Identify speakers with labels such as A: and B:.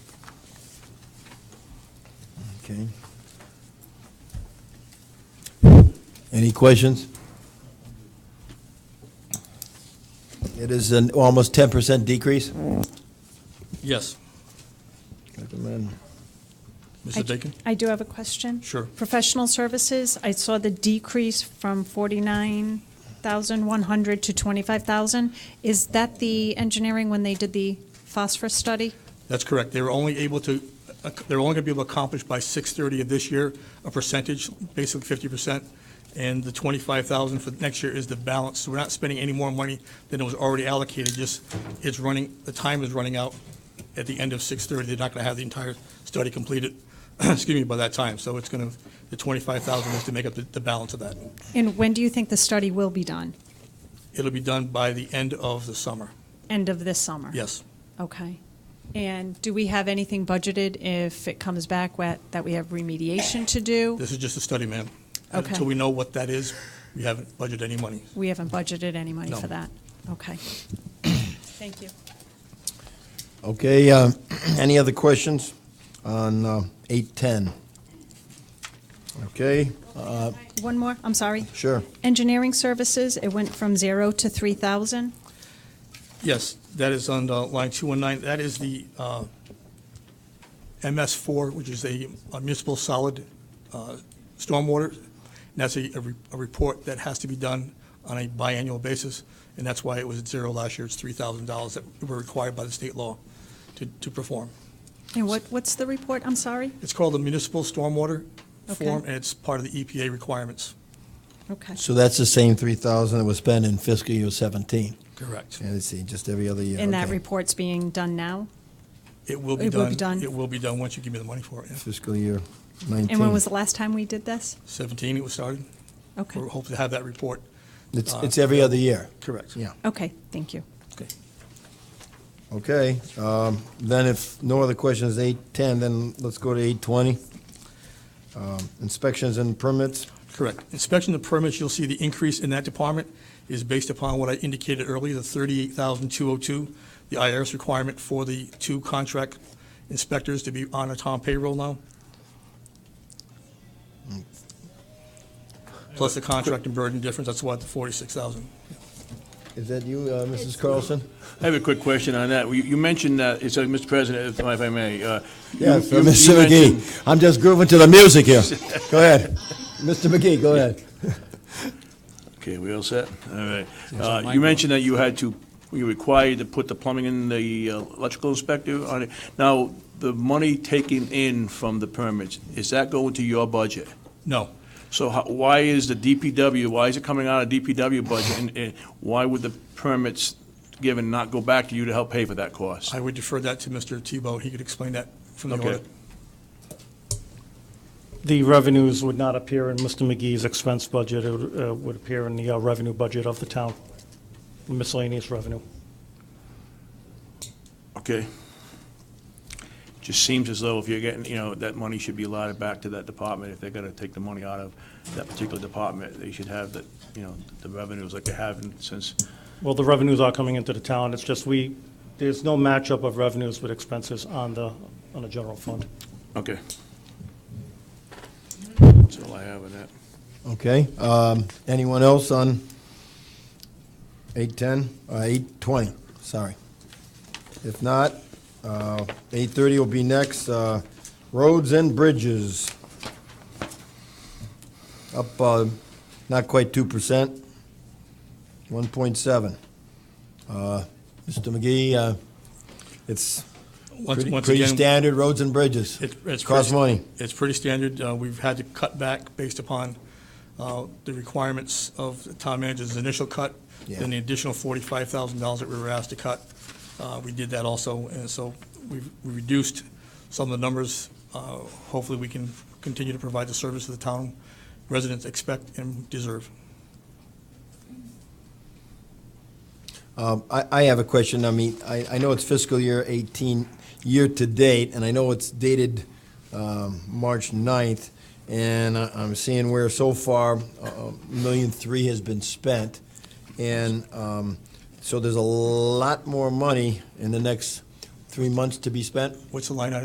A: Okay. Any questions? It is an almost ten percent decrease.
B: Yes.
A: Recommend.
B: Mrs. Dakin?
C: I do have a question.
B: Sure.
C: Professional services, I saw the decrease from 49,100 to 25,000. Is that the engineering when they did the phosphorus study?
B: That's correct. They were only able to, they're only going to be able to accomplish by 6:30 of this year, a percentage, basically 50%. And the 25,000 for next year is the balance. So we're not spending any more money than was already allocated, just it's running, the time is running out at the end of 6:30. They're not going to have the entire study completed, excuse me, by that time. So it's going to, the 25,000 is to make up the- the balance of that.
C: And when do you think the study will be done?
B: It'll be done by the end of the summer.
C: End of this summer?
B: Yes.
C: Okay. And do we have anything budgeted if it comes back wet, that we have remediation to do?
B: This is just a study, ma'am.
C: Okay.
B: Until we know what that is, we haven't budgeted any money.
C: We haven't budgeted any money
B: No.
C: for that? Okay. Thank you.
A: Okay, uh, any other questions on uh, eight ten? Okay, uh,
C: One more, I'm sorry.
A: sure.
C: Engineering services, it went from zero to 3,000.
B: Yes, that is on uh, line 219. That is the uh, MS4, which is a a municipal solid uh, stormwater. And that's a, a re- a report that has to be done on a biannual basis, and that's why it was at zero last year. It's $3,000 that were required by the state law to, to perform.
C: And what, what's the report? I'm sorry?
B: It's called the Municipal Stormwater
C: Okay.
B: Form, and it's part of the EPA requirements.
C: Okay.
A: So that's the same three thousand that was spent in fiscal year seventeen.
B: Correct.
A: Yeah, let's see, just every other year.
C: And that
A: okay.
C: report's being done now?
B: It will be
C: It
B: done.
C: will be done.
B: It will be done once you give me the money for it. yeah.
A: Fiscal year nineteen.
C: And when was the last time we did this?
B: 17, it was started.
C: Okay.
B: We're hoping to have that report.
A: It's, it's every other year.
B: Correct.
A: Yeah.
C: Okay, thank you.
B: Okay.
A: Okay, um, then if no other questions, eight ten, then let's go to eight twenty. Um, Inspections and permits,
B: Correct. Inspection of permits, you'll see the increase in that department is based upon what I indicated earlier, the 38,202, the IRS requirement for the two contract inspectors to be on a Tom payroll now.
A: Mm.
B: Plus the contract and burden difference, that's why the 46,000.
A: is that you, uh, Mrs. Carlson?
D: I have a quick question on that. You you mentioned that, so, Mr. President, if if I may. uh, you-
A: Yes,
D: you- you
A: Mr.
D: mentioned-
A: McGee, I'm just grooving to the music here. Go ahead. Mr. McGee, go ahead.
D: Okay, we all set? All right. Uh, You mentioned that you had to, you required to put the plumbing in the uh, electrical inspector on it. Now, the money taken in from the permits, is that going to your budget?
B: No.
D: So how- why is the DPW, why is it coming out of DPW budget? and- And why would the permits given not go back to you to help pay for that cost?
B: I would defer that to Mr. Tebow. He could explain that from the
D: Okay.
B: audit.
E: The revenues would not appear in Mr. McGee's expense budget, it would, uh, would appear in the uh, revenue budget of the town, miscellaneous revenue.
D: Okay. Just seems as though if you're getting, you know, that money should be allotted back to that department. If they're gonna take the money out of that particular department, they should have the, you know, the revenues like they have in- since,
E: Well, the revenues are coming into the town, it's just we, there's no matchup of revenues with expenses on the, on the general fund.
D: okay. That's all I have on that.
A: Okay, um, anyone else on eight ten, uh, eight twenty, sorry. If not, uh, eight thirty will be next, uh, roads and bridges. Up, uh, not quite two percent, one point seven. Uh, Mr. McGee, uh, it's
B: Once-
A: pretty,
B: once
A: pretty
B: again-
A: standard roads and bridges.
B: It- It's
A: Costs
B: pretty-
A: money.
B: It's pretty standard. Uh, We've had to cut back based upon uh, the requirements of the town manager's initial cut,
A: Yeah.
B: then the additional forty-five thousand dollars that we were asked to cut. Uh, We did that also, and so we've we reduced some of the numbers. Uh, Hopefully, we can continue to provide the service that the town residents expect and deserve.
A: Um, I I have a question. I mean, I I know it's fiscal year 18, year-to-date, and I know it's dated um, March 9th, and I- I'm seeing where so far, uh, uh, million three has been spent, and um, so there's a lot more money in the next three months to be spent?
B: What's the line item